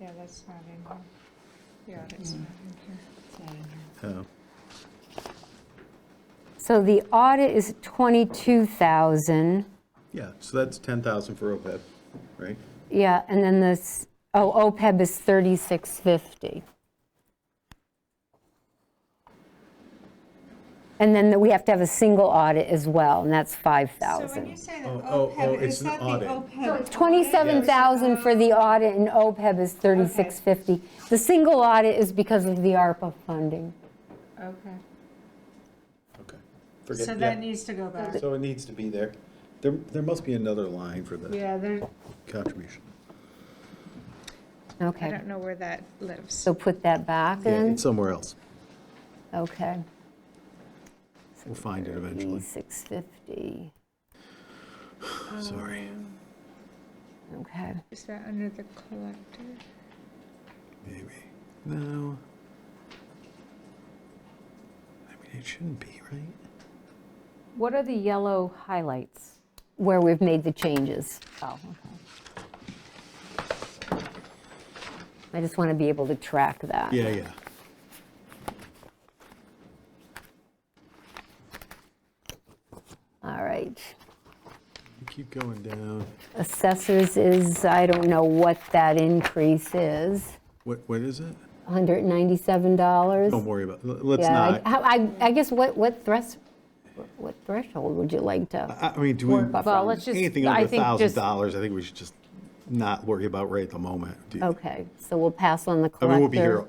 Yeah, that's not in here. The audit's not in here. Oh, So the audit is 22,000, yeah, so that's 10,000 for OPEB, right? yeah, and then this, oh, OPEB is 3650. And then we have to have a single audit as well, and that's So when you 5,000. say the Oh, oh, oh, OPEB, it's is an that the audit. OPEB? 27,000 for the audit and OPEB is 3650. The single audit is because of the ARPA funding. Okay, Okay. Forget- so yeah. that needs to go back. So it needs to be there. There, there must be another line for the Yeah, there, contribution. I Okay, don't know where that lives. so put that back Yeah, in? it's somewhere else. Okay. We'll find it eventually. 3650, Sorry. Um, okay. Is that under the collector? Maybe. No. I mean, it shouldn't be, right? What are the yellow highlights? Where we've made the changes. Oh, okay. I just want to be able to track that. Yeah, yeah. All right. You Keep going down. Assessors is, I don't know what that increase is, What, what is it? $197? Don't worry about, it. let's Yeah, not. I- how- I, I guess what, what thres, what threshold would you like to? I I mean, do we, Or- Well, let's just- anything I under think thousand just- dollars, I think we should just not worry about right at the moment. Do you- Okay, so we'll pass on the I collector. mean, we'll be here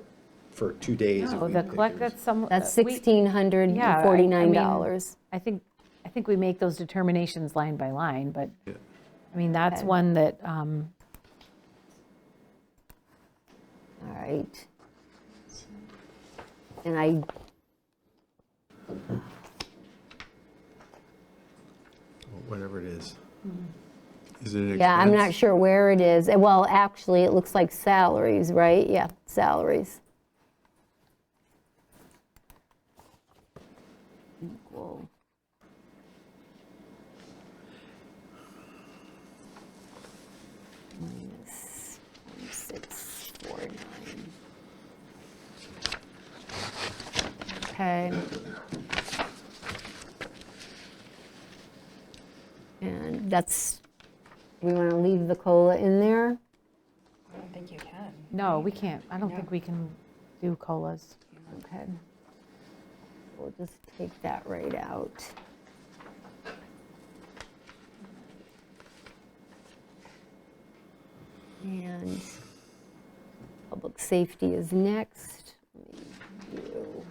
for two days. if Oh, we the think collect, there's- that's some. That's uh, we- yeah, I- I mean, $1,649. I think, I think we make those determinations line by line, but, I mean, that's one that, um, All right. And I, Whatever it is. Mm-hmm. Is it an expense? yeah, I'm not sure where it is. Eh, Well, actually, it looks like salaries, right? Yeah, salaries. Equal. Minus 1649. Okay. And that's, we want to leave the COLA in there? I don't think you can. no, we can't, I don't think we can do COLAs. Okay. We'll just take that right out. And public safety is next. Let me do-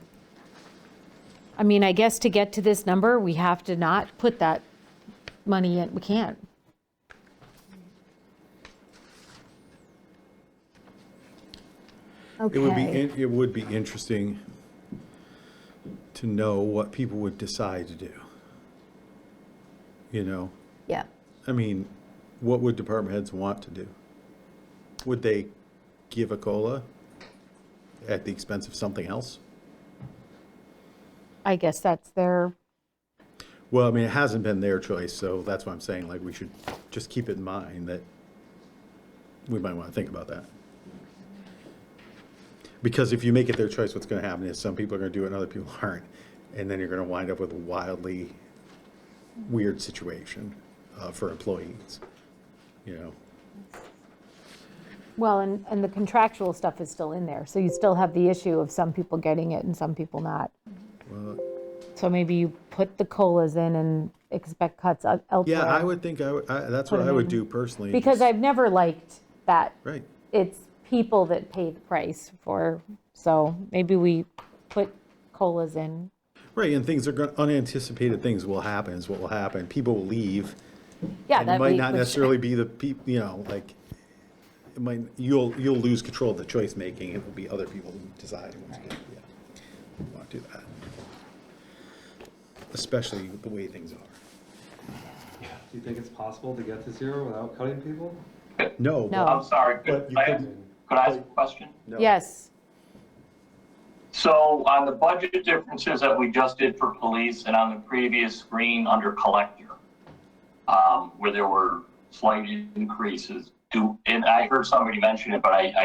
I mean, I guess to get to this number, we have to not put that money in, we can't. It would be, Okay, in- it would be interesting to know what people would decide to do. You know, yeah, I mean, what would department heads want to do? Would they give a COLA at the expense of something else? I guess that's their, Well, I mean, it hasn't been their choice, so that's why I'm saying, like, we should just keep it in mind that we might want to think about that. Because if you make it their choice, what's going to happen is some people are going to do it and other people aren't. And then you're going to wind up with a wildly weird situation uh, for employees, you know? well, and, and the contractual stuff is still in there, so you still have the issue of some people getting it and some people not. So maybe you put the COLAs in and expect cuts el- elsewhere. Yeah, I would think, I, would- I- that's what I would do personally. Because I've never liked that Right. it's people that pay the price for, so maybe we put COLAs in. Right, and things are, going unanticipated things will happen is what will happen. People will leave. Yeah, And it that might we- not which- necessarily be the people, you know, like, it might, you'll, you'll lose control of the choice making. It will be other people who decide. what's good, yeah. Want to do that. Especially with the way things are. Do you think it's possible to get to zero without cutting people? No. but- No. I'm sorry, But could you I, could- could I ask a question? no. Yes, So on the budget differences that we just did for police and on the previous screen under collector, um, where there were slight increases, do, and I heard somebody mention it, but I, I